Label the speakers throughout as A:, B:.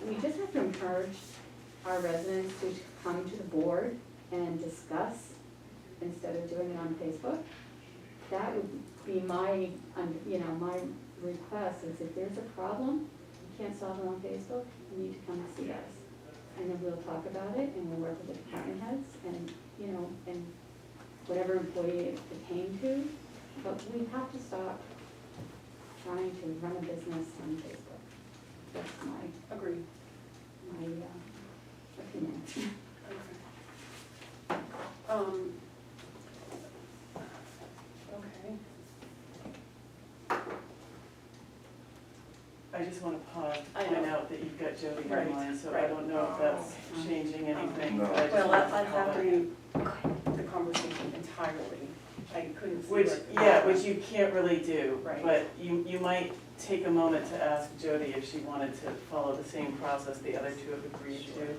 A: to encourage our residents to come to the board and discuss instead of doing it on Facebook. That would be my, um, you know, my request is if there's a problem, you can't solve it on Facebook, you need to come and see us. And then we'll talk about it and we'll work with the department heads and, you know, and whatever employee it came to. But we have to stop trying to run a business on Facebook. That's my,
B: Agree.
A: my uh, opinion.
B: Okay. Um. Okay.
C: I just want to pause
B: I
C: to point
B: know.
C: out that you've got Jody
B: Right,
C: online, so I
B: right.
C: don't know if that's changing anything.
D: No.
C: but I just
B: Well,
C: wanted
B: that
C: to
B: that
C: call it.
B: happened, the conversation entirely. I couldn't see.
C: Which,
B: what-
C: yeah, which you can't really do,
B: Right.
C: but you, you might take a moment to ask Jody if she wanted to follow the same process the other two have agreed
B: Sure.
C: to.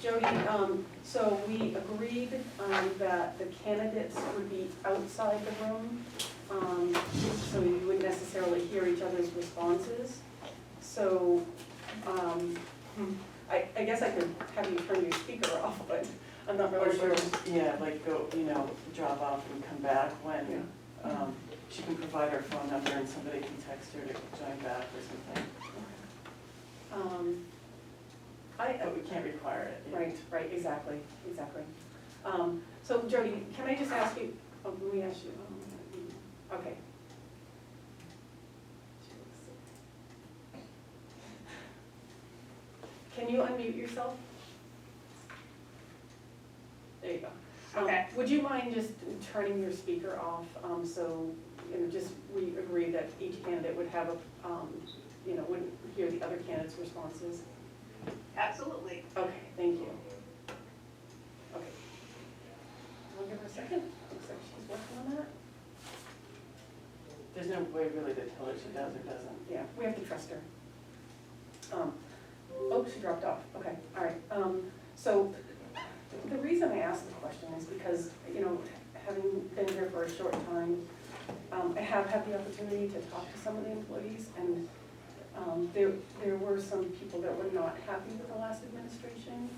B: Jody, um, so we agreed, um, that the candidates would be outside the room, um, so you wouldn't necessarily hear each other's responses. So, um, I, I guess I could have you turn your speaker off, but I'm not
C: Or
B: really sure.
C: just, yeah, like go, you know, drop off and come back when, um, she can provide her phone number and somebody can text her to join back or something.
B: Um, I, uh,
C: But we can't require it. yeah.
B: Right, right, exactly, exactly. Um, So Jody, can I just ask you, oh, let me ask you, oh, okay. Can you unmute yourself? There you go. Um,
E: Okay.
B: Would you mind just turning your speaker off, um, so, you know, just, we agree that each candidate would have a, um, you know, wouldn't hear the other candidate's responses?
E: Absolutely.
B: Okay, thank you. Okay. I'll give her a second. Looks like she's working on that.
C: There's no way really to tell if she does or doesn't.
B: Yeah, we have to trust her. Um, Oh, she dropped off. Okay, all right. Um, So the reason I asked the question is because, you know, having been here for a short time, um, I have had the opportunity to talk to some of the employees and um, there, there were some people that were not happy with the last administration.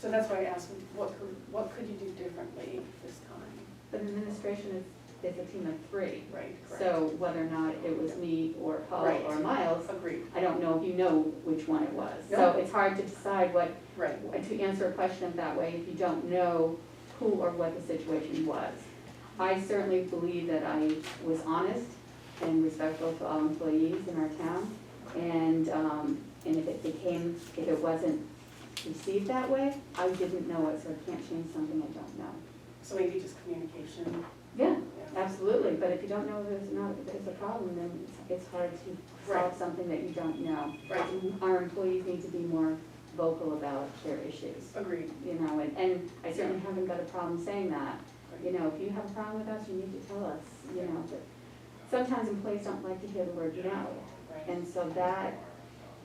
B: So that's why I asked, what could, what could you do differently this time?
A: But administration is, is a team of three.
B: Right, correct.
A: So whether or not it was me or Paul
B: Right.
A: or Miles,
B: Agreed,
A: I don't know if you know which one it was.
B: No.
A: So it's hard to decide what,
B: right.
A: to answer a question that way if you don't know who or what the situation was. I certainly believe that I was honest and respectful to all employees in our town. And, um, and if it became, if it wasn't received that way, I didn't know it, so I can't change something I don't know.
B: So maybe just communication.
A: Yeah,
B: yeah.
A: Absolutely, but if you don't know there's not, there's a problem, then it's- it's hard to solve
B: Right.
A: something that you don't know.
B: Right,
A: Our employees need to be more vocal about their issues,
B: agreed.
A: you know, and, and I certainly haven't got a problem saying that. You know, if you have a problem with us, you need to tell us, you know, but sometimes employees don't like to hear the word no.
B: Right.
A: And so that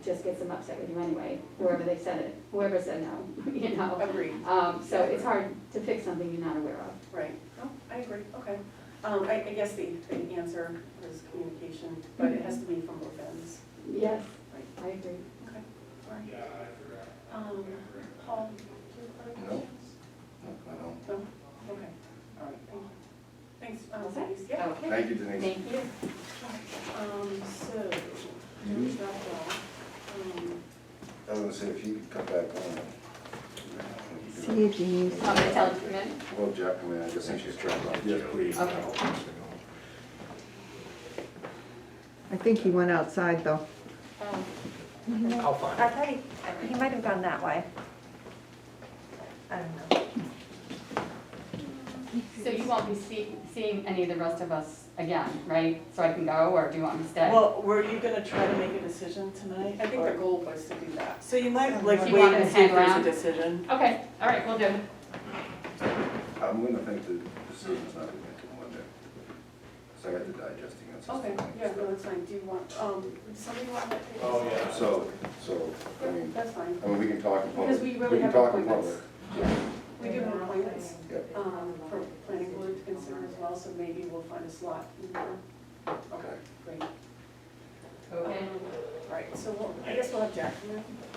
A: just gets them upset with you anyway, whoever they said it, whoever said no, you know.
B: Agreed,
A: Um, so it's hard to fix something you're not aware of.
B: right. No, I agree, okay. Um, I, I guess the, the answer is communication, but it has to be from both ends.
A: Yes,
B: Right.
A: I agree.
B: Okay, all right. Um, Paul, do you have other
D: No.
B: questions?
D: I don't.
B: No? Okay, all right, thank you. Thanks, um,
A: Okay.
B: Denise, yeah.
A: Okay.
D: Thank you, Denise.
A: Thank you.
B: Um, so, we
D: You-
B: dropped off. Um,
D: Mm-hmm. I was gonna say, if you could come back on.
F: See you, Denise.
A: I'm gonna tell them to come in.
D: Well, Jack, I mean, I guess I should try. Yes, please.
A: Okay.
F: I think he went outside, though.
A: Um,
G: I'll find
E: I thought he, he might have gone that way. I don't know.
A: So you won't be see- seeing any of the rest of us again, right? So I can go, or do you want me to stay?
C: Well, were you gonna try to make a decision tonight?
B: I think
C: or-
B: the goal was to do that.
C: So you might like
A: Do you
C: wait
A: want me
C: and
A: to
C: see if
A: hang
C: there's a
A: around?
C: decision.
A: Okay, all right, we'll do.
D: I'm gonna think the decision's not gonna make it one day. So I got to digesting it. so it's
B: Okay,
D: fine.
B: yeah, no, that's fine. Do you want, um, would somebody want that? taken?
G: Oh, yeah.
D: So, so, I mean,
B: That's fine.
D: I mean, we can talk in public.
B: Because we really
D: can
B: have
D: talk in
B: appointments.
D: public.
B: We do have appointments,
D: Yeah.
B: um, for planning board to consider as well, so maybe we'll find a slot. in there. Okay, great.
A: Okay.
B: Um, Right, so we'll, I guess we'll have Jack come in.